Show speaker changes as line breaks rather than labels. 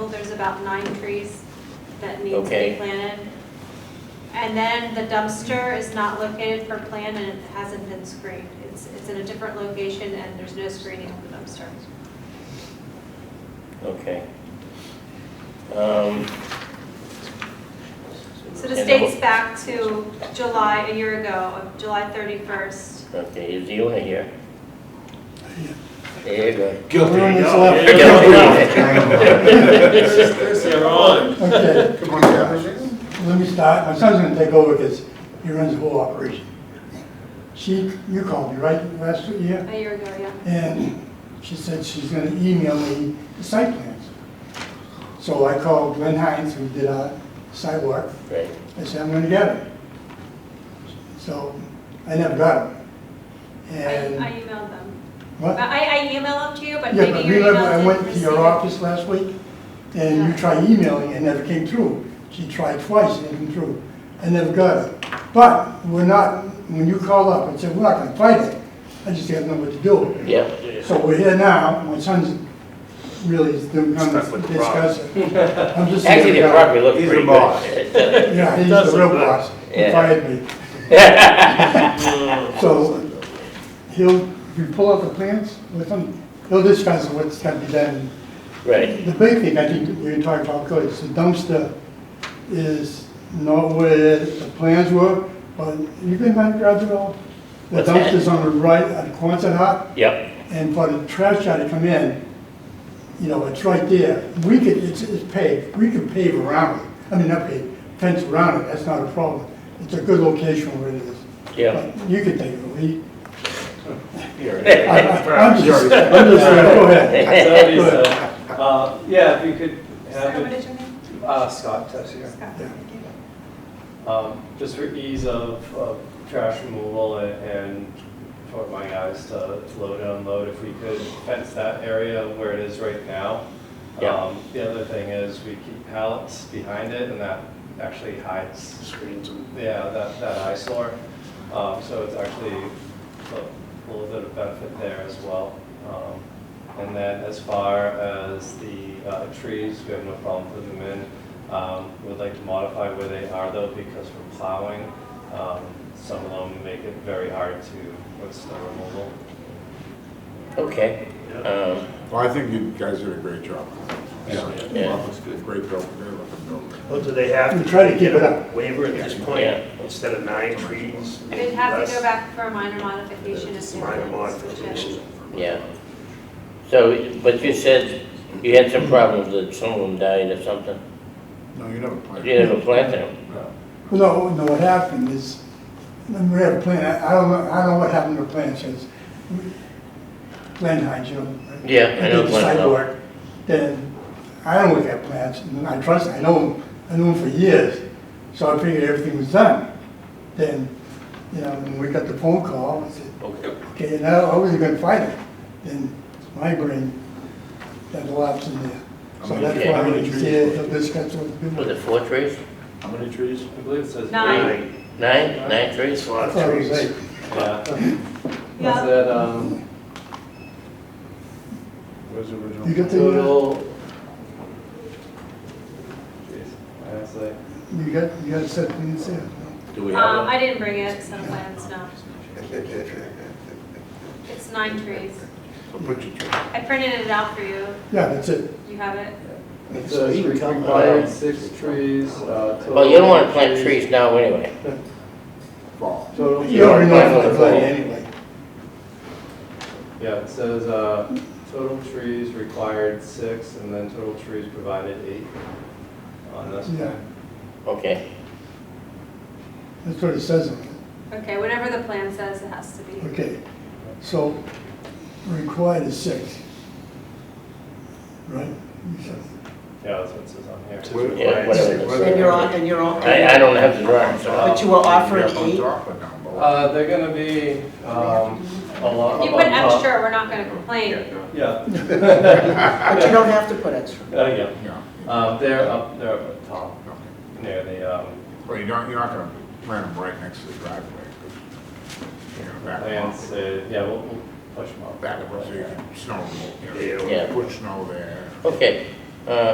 about nine trees that need to be
Okay.
planted. And then the dumpster is not located for plan and it hasn't been screened. It's, it's in a different location and there's no screening of the dumpster.
Okay. Um,
So this
and the-
dates back to July, a year ago, of July 31st.
Okay, is the owner here? There you go.
Guilty.
Everyone that's
yeah.
left.
They're on.
Okay,
Come on, guys.
let me start. My son's gonna take over because he runs the whole operation. She, you called me, right, last year?
A year ago, yeah.
And she said she's gonna email me the site plans. So I called Glenn Hines, who did our sidewalk.
Right,
I said, I'm gonna get it. So I never got it. And.
I I emailed them.
what?
I, I emailed them to you, but
Yeah, but
maybe your
remember,
email
I
didn't
went to
receive
your
it.
office last week, and
Yeah.
you tried emailing, and never came through. She tried twice, and it came through. I never got it. But we're not, when you called up and said, we're not gonna fight it, I just didn't know what to do.
yeah.
So we're here now, my son's really is doing, come
Stuck with the
discuss it. I'm just.
Actually, the property looks
He's the
pretty
boss.
good.
Yeah, he's the real boss. He
Yeah.
fired me. So he'll, if you pull out the plans with him, he'll discuss what's gotta be done
Right,
The big thing I think we can talk about, good, is the dumpster is not where the plans were, but you can find garage at all. The
What's that?
dumpster's on the right at Quonset Hut,
yep,
and for the trash guy to come in, you know, it's right there. We could, it's, it's paved, we could pave around it, I mean, not pave, fence around it, that's not a problem. It's a good location where it is.
yeah.
But You could take it, we, I-
Here.
I- I'm just, I'm just, go ahead.
Sorry,
Go ahead.
so, uh, Yeah, if you could
Sarah,
have
what
it,
is your name?
uh, Scott Tessier.
Scott.
Yeah.
Thank you.
Um, Just for ease of of trash removal a- and for my guys to load and unload, if we could fence that area where it is right now.
Yeah.
Um, The other thing is we keep pallets behind it and that actually hides
Screens and-
Yeah, that, that eyesore. Um, so it's actually a little bit of benefit there as well. Um, and then as far as the uh, trees, we have no problem putting them in. Um, we'd like to modify where they are though, because we're plowing. Um, some of them make it very hard to, with snow removal.
Okay. Um,
Well, I think you guys did a great job.
Yeah.
Well, it's good. Great build, great looking building.
Well, do they have
We
to?
try to keep it up.
Waiver at this point,
Yeah.
instead of nine trees?
They'd have to go
less-
back for a minor modification. if
It's
they
minor
wanted to switch it.
modification.
Yeah. So, but you said you had some problems that some of them died or something?
No, you never
You
played.
didn't have a plant there?
No, no, what happened is, we had a plan, I I don't know, I don't know what happened to the plan since. Glenn Hines, you know.
Yeah, I know
did the
Glenn well.
sidewalk, Then, I don't look at plans, and I trust, I know him, I knew him for years, so I figured everything was done. Then, you know, when we got the phone call, I said,
Okay.
okay, now, I wasn't gonna fight it. Then my brain, that lapsed in there. So
How
many-
that's
yeah,
how
why
many
he's
trees
here,
were
he'll discuss with
Was
people.
it four trees?
How many trees?
I believe it says.
Nine.
Nine,
Nine, nine
it's
trees?
a
I
lot of
thought it was
trees.
eight.
Yeah.
Yeah.
Was that, um,
Where's the original?
You got the, uh,
total? Jeez, I have to say.
you got, you got a set things there.
Do we
Um,
have
I didn't bring it, some plans, no. It's nine trees.
So put your tree.
I printed it out for you.
Yeah, that's it.
You have it?
It
So
says
you can come
required
around.
six trees, uh, total.
them? Well, you don't want to plant
trees-
trees now anyway.
Fall.
Total.
You already know what the plan anyway.
Yeah, it says, uh, total trees required six, and then total trees provided eight on this
Yeah.
plan.
Okay,
That's what it says on it.
Okay, whatever the plan says, it has to be.
Okay. So required is six. Right? You said-
Yeah, that's what it says on here.
Where-
yeah, whatever.
And you're on, and you're on,
I, I don't uh, have the drawing, so.
but you were offering
Yeah, on
eight?
top or down below?
Uh, they're gonna be, um, a lot.
If you
up
put
on top.
extra, we're not gonna complain.
Yeah,
But you don't have to put extra.
uh, yeah,
Yeah,
um, they're up, they're up at the top,
okay.
near the, um,
Well, you don't, you're not gonna plant them right next to the driveway. 'cause, You know, back them up.
plants, uh, yeah, we'll, we'll push them up.
Back them up so you can snow, removal, you know,
Yeah.
Yeah.
put snow there.
Okay, uh,